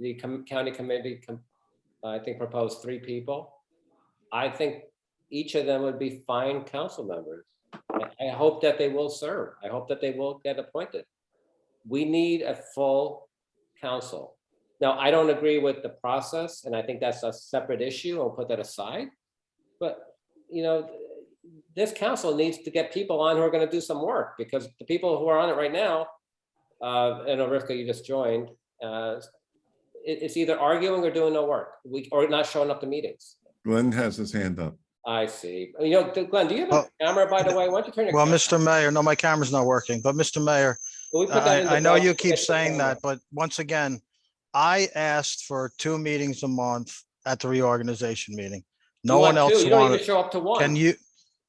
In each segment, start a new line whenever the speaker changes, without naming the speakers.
the com- county committee, com- I think proposed three people. I think each of them would be fine council members. I- I hope that they will serve. I hope that they will get appointed. We need a full council. Now, I don't agree with the process, and I think that's a separate issue. I'll put that aside. But, you know, this council needs to get people on who are gonna do some work, because the people who are on it right now, uh, and Arifka, you just joined, uh, it, it's either arguing or doing no work, we, or not showing up to meetings.
Glenn has his hand up.
I see. You know, Glenn, do you have a
Well-
camera, by the way? Why don't you turn your?
Well,
camera-
Mr. Mayor, no, my camera's not working, but Mr. Mayor,
Will we put that in the
I, I know
doc-
you keep
Yes, the
saying
camera.
that, but once again, I asked for two meetings a month at the reorganization meeting. No
You
one
want two,
else
You don't even
wanted.
show up to one.
Can you,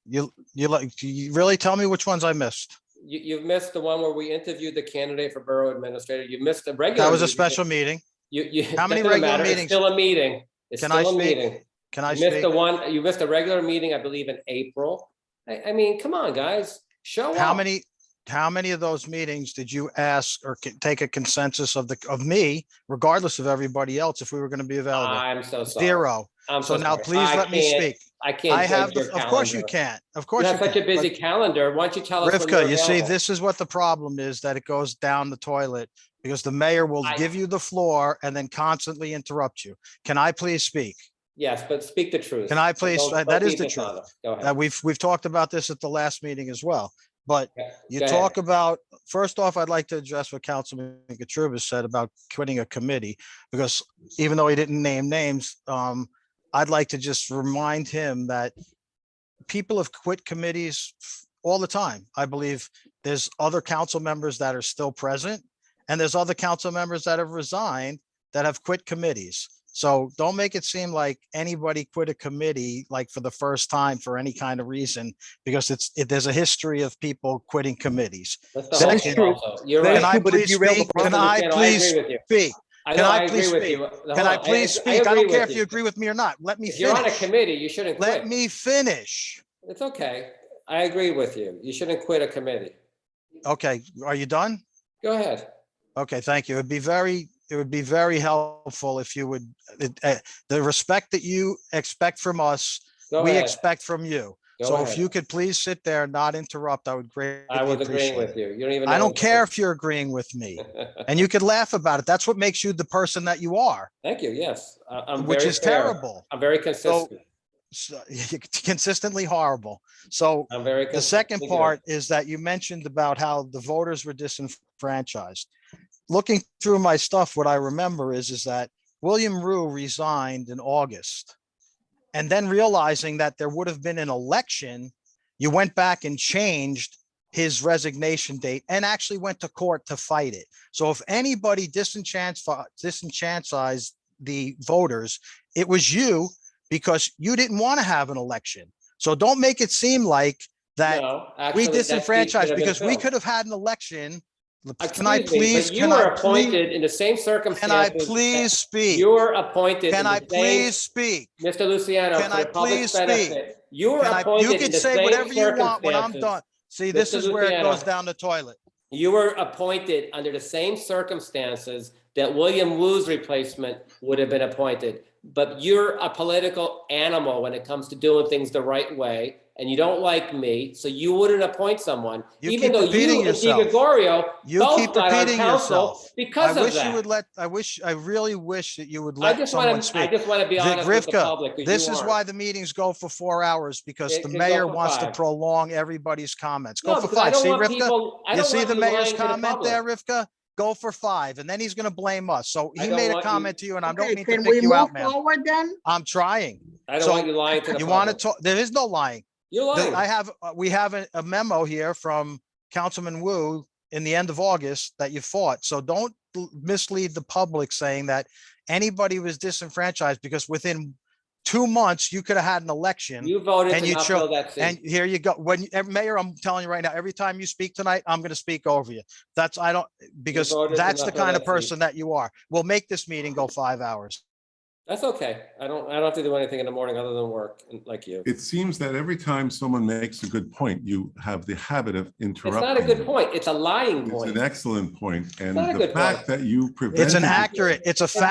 you, you like, do you really tell me which ones I missed?
You, you've missed the one where we interviewed the candidate for borough administrator. You missed the regular.
That was a
meeting.
special meeting.
You, you.
How many
doesn't
regular
matter. It's
meetings?
Still a meeting. It's
Can
still
I
a
speak?
meeting.
Can I
You missed
speak?
the one, you missed a regular meeting, I believe, in April. I, I mean, come on, guys, show up.
How many, how many of those meetings did you ask or c- take a consensus of the, of me, regardless of everybody else, if we were going to be available?
I'm so sorry.
Zero.
I'm
So now
sorry.
please
I
let me
can't-
speak.
I can't.
I have,
judge
the-
your
of course you
calendar.
can't. Of
You
course you
have
can.
such a
but-
busy calendar. Why don't you tell us? when
Rivka,
you're
you see,
available?
this is what the problem is, that it goes down the toilet because the mayor will
I-
give you the floor and then constantly interrupt you. Can I please speak?
Yes, but speak the truth.
Can I please-
Don't-
that
don't
is
be
the truth.
dishonest. Go
Uh,
ahead.
we've, we've talked about this at the last meeting as well, but
Okay,
you
go ahead.
talk about, first off, I'd like to address what Councilman Katrubis said about quitting a committee. Because even though he didn't name names, um, I'd like to just remind him that people have quit committees f- all the time. I believe there's other council members that are still present. And there's other council members that have resigned that have quit committees. So don't make it seem like anybody quit a committee, like for the first time for any kind of reason, because it's, it, there's a history of people quitting committees.
That's the
That
whole
is
thing
true.
also. You're
Can
right.
I
true, but if
please
you rail the
speak?
Councilman
Can I
Cano,
please
agree with you.
speak?
I
can
know,
I
I agree
please
with
speak?
you. Hold
Can I
on,
please
I
speak? I
agree
don't care
with
if you agree with me or not. Let me
If you're on a
finish.
committee, you shouldn't
Let
quit.
me finish.
It's okay. I agree with you. You shouldn't quit a committee.
Okay, are you done?
Go ahead.
Okay, thank you. It'd be very, it would be very helpful if you would, it- eh, the respect that you expect from us,
Go
we
ahead.
expect from you.
Go
So if
ahead.
you could please sit there and not interrupt, I would greatly
I was agreeing
appreciate
with
it.
you. You don't even.
I
know
don't
what-
care if you're agreeing with me and you could laugh about it. That's what makes you the person that you are,
Thank you. Yes, I- I'm
which
very
is
fair.
terrible.
I'm very consistent.
So- Consistently horrible. So
I'm very.
The
consistent.
second
Thank you.
part is that you mentioned about how the voters were disenfranchised. Looking through my stuff, what I remember is, is that William Rue resigned in August. And then realizing that there would have been an election, you went back and changed his resignation date and actually went to court to fight it. So if anybody disenchantfi- disenfranchised the voters, it was you because you didn't want to have an election. So don't make it seem like that
No, actually, that seat
we
should have
disenfranchised
been
because we
filled.
could have had an election. L-
Excuse
Can I
me, but
please?
You
can
were
I please-
appointed in the same circumstances.
Can I
that
please speak?
You were appointed. in
Can I
the same-
please speak?
Mr. Luciano,
Can
for
I
the public's
please speak?
benefit, you were
Can I- You
appointed in
can
the
say
same
whatever you want when I'm
circumstances.
done. See, this
Mr.
is where it goes
Luciano.
down the toilet.
You were appointed under the same circumstances that William Wu's replacement would have been appointed. But you're a political animal when it comes to doing things the right way, and you don't like me, so you wouldn't appoint someone.
You
Even
keep
though
repeating
you and Di
yourself.
Gregorio
You
both
keep
got on
repeating
council
yourself. I
because of
wish you would
that.
let, I wish, I really wish that you would
I
let
just
someone
want to, I
speak.
just want to be
Vic
honest with the
Rivka,
public. 'cause
This
you
is
aren't.
why the meetings go for four hours because
It
the
can go
mayor
for
wants to
five.
prolong everybody's comments.
No,
Go for
because I
five.
don't
See,
want
Rivka?
people- I
You
don't
see
want
the
you lying
mayor's
to
comment
public.
there, Rivka? Go for five, and then he's gonna blame us. So
I
he
don't
made a
want you-
comment to you, and I don't
Okay,
mean to
can we
pick you out,
move
man.
forward then?
I'm trying.
I don't
So,
want you lying to the
You wanna
public.
talk, there is no lying.
You're
The-
lying.
I have, uh, we have a a memo here from Councilman Wu in the end of August that you fought. So don't l- mislead the public saying that anybody was disenfranchised because within two months, you could have had an election.
You voted
and
to
you
not
cho-
fill that seat.
And here you go. When, you- eh, Mayor, I'm telling you right now, every time you speak tonight, I'm going to speak over you. That's, I don't, because
voted to
that's
not
the
fill
kind
that
of
seat.
person that you are. We'll make this meeting go five hours.
That's okay. I don't, I don't have to do anything in the morning other than work, like you.
It seems that every time someone makes a good point, you have the habit of
It's
interrupting.
not a good
them.
point. It's a lying
It's
point.
an excellent point, and
not a
the
good
fact
point.
that you prevented.
It's an
me-
accurate, it's a fact.